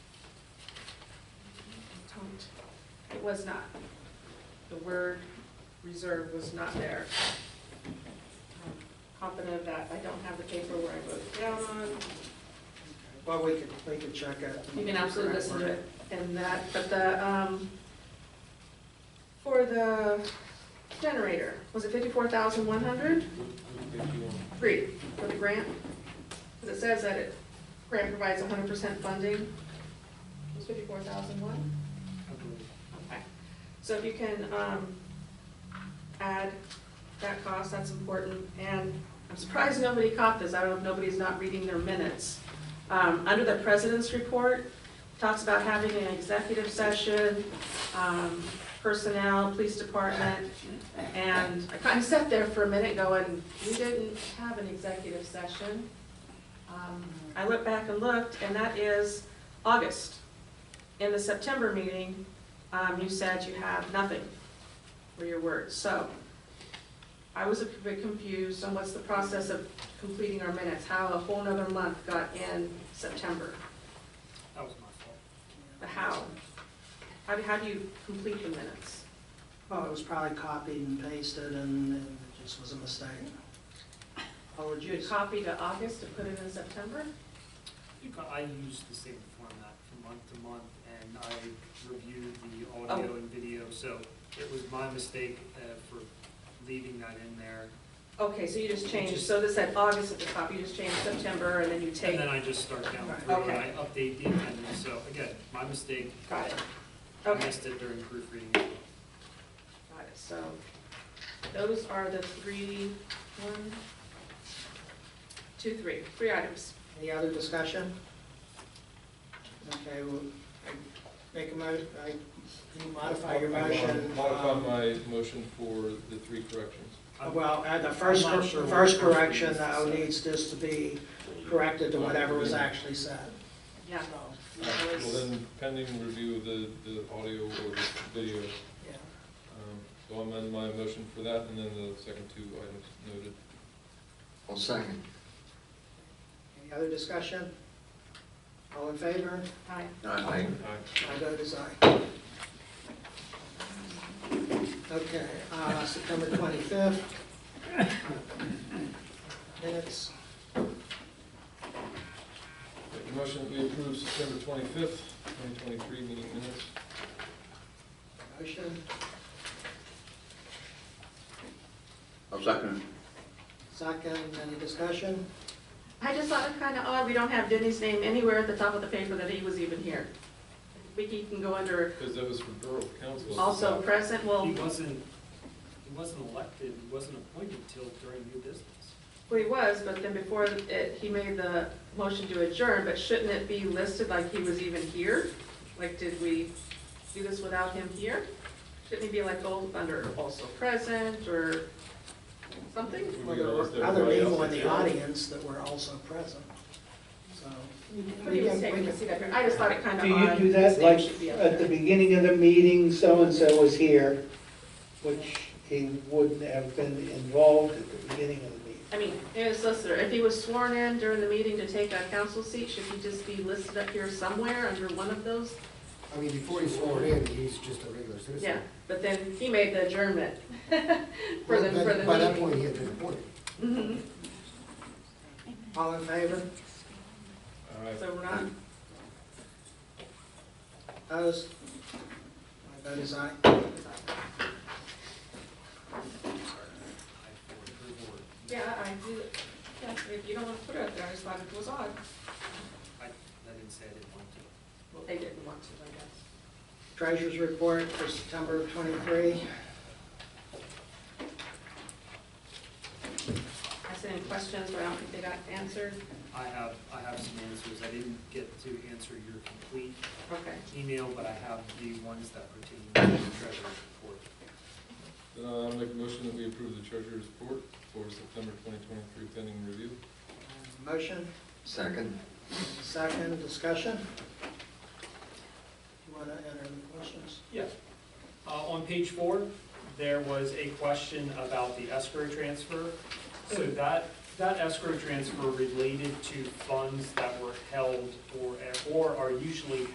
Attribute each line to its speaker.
Speaker 1: It was not. The word reserve was not there. I'm Confident of that, I don't have the paper where I wrote it down on.
Speaker 2: Well, we could, we could check it.
Speaker 1: You can absolutely listen to it and that, but the, um, for the generator, was it fifty-four thousand one hundred? Three, for the grant? Because it says that it, grant provides hundred percent funding. It was fifty-four thousand one? Okay. So if you can, um, add that cost, that's important. And I'm surprised nobody caught this, I don't know if nobody's not reading their minutes. Um, under the president's report, talks about having an executive session, um, personnel, police department. And I kind of sat there for a minute going, we didn't have an executive session. Um, I went back and looked, and that is August. In the September meeting, um, you said you have nothing for your words, so I was a bit confused on what's the process of completing our minutes, how a whole nother month got in September,
Speaker 2: That was my
Speaker 1: the how. How do, how do you complete the minutes?
Speaker 2: fault. Well, it was probably copied and pasted and and it just was a mistake.
Speaker 1: You
Speaker 2: Apologies.
Speaker 1: copy to August and put it in September?
Speaker 3: You ca- I use the same format from month to month, and I reviewed the
Speaker 1: Oh.
Speaker 3: audio and video, so it was my mistake uh, for leaving that in there.
Speaker 1: Okay, so you just changed, so this said August at the top, you just changed September, and then you
Speaker 3: And
Speaker 1: take,
Speaker 3: then I just start down
Speaker 2: Right.
Speaker 3: through, and I
Speaker 1: Okay.
Speaker 3: update the amendment, so again, my mistake.
Speaker 1: got it.
Speaker 3: I
Speaker 1: Okay,
Speaker 3: missed it during proofreading.
Speaker 1: got it, so those are the three, one, two, three, three items.
Speaker 2: Any other discussion? Okay, well, I make a mo, I, can you modify your motion.
Speaker 4: Modify
Speaker 2: Um,
Speaker 4: my motion for the three corrections.
Speaker 3: I'm-
Speaker 2: Well, uh, the first,
Speaker 3: I'm not sure what
Speaker 2: first
Speaker 3: the first
Speaker 2: correction
Speaker 3: is,
Speaker 2: though
Speaker 3: so-
Speaker 2: needs just to be corrected to whatever was actually said.
Speaker 1: Yeah,
Speaker 2: So,
Speaker 4: Uh, Well, then pending review of the, the audio or the video,
Speaker 2: yeah.
Speaker 4: um, so I'll amend my motion for that and then the second two items noted.
Speaker 5: I'll second.
Speaker 2: Any other discussion? All in favor?
Speaker 1: aye.
Speaker 5: Aye.
Speaker 2: My vote is aye. Okay, uh, September 25th. Minutes,
Speaker 4: Make a motion that we approve September twenty-fifth, twenty twenty-three meeting minutes.
Speaker 2: motion,
Speaker 5: I'll second.
Speaker 2: second, any discussion?
Speaker 1: I just thought it kind of odd, we don't have Denny's name anywhere at the top of the paper that he was even here. Vicky can go under
Speaker 4: Because that was for Borough Council.
Speaker 1: also present, well,
Speaker 3: Um, He wasn't, he wasn't elected, he wasn't appointed till during new business.
Speaker 1: well, he was, but then before it, he made the motion to adjourn, but shouldn't it be listed like he was even here? Like, did we do this without him here? Shouldn't he be like, oh, under also present or something?
Speaker 2: Well, there were other people in the audience that were also present, so.
Speaker 1: But he was taking a seat up here, I just thought it kind of
Speaker 6: Do
Speaker 1: odd.
Speaker 6: you do
Speaker 1: His
Speaker 6: that,
Speaker 1: name
Speaker 6: like,
Speaker 1: should be up
Speaker 6: at the
Speaker 1: there.
Speaker 6: beginning of the meeting, so-and-so was here, which he wouldn't have been involved at the beginning of the meeting?
Speaker 1: I mean, as solicitor, if he was sworn in during the meeting to take a council seat, should he just be listed up here somewhere under one of those?
Speaker 7: I mean, before he's sworn in, he's just a regular citizen.
Speaker 1: Yeah, but then he made the adjournment for
Speaker 7: Well,
Speaker 1: the,
Speaker 7: then,
Speaker 1: for the
Speaker 7: By that
Speaker 1: meeting.
Speaker 7: point, he had been appointed.
Speaker 1: Mhm.
Speaker 2: All in favor?
Speaker 4: All right,
Speaker 1: So we're not,
Speaker 2: Opposed? My vote is aye.
Speaker 3: I for approval or
Speaker 1: yeah, I do, yeah, if you don't want to put it up there, I just thought it was odd.
Speaker 3: I, I didn't say I didn't want to.
Speaker 1: Well, they didn't want to, I guess.
Speaker 2: Treasurer's report for September of 23.
Speaker 1: I sent in questions, but I don't think they got answered.
Speaker 3: I have, I have some answers. I didn't get to answer your complete
Speaker 1: Okay,
Speaker 3: email, but I have the ones that pertain to the treasurer's report.
Speaker 4: then I'll make a motion that we approve the treasurer's report for September twenty twenty-three pending review.
Speaker 2: Motion,
Speaker 5: Second.
Speaker 2: second, discussion? You want to enter the questions?
Speaker 3: Yes. Uh, on page four, there was a question about the escrow transfer. So that, that escrow transfer related to funds that were held or, or are usually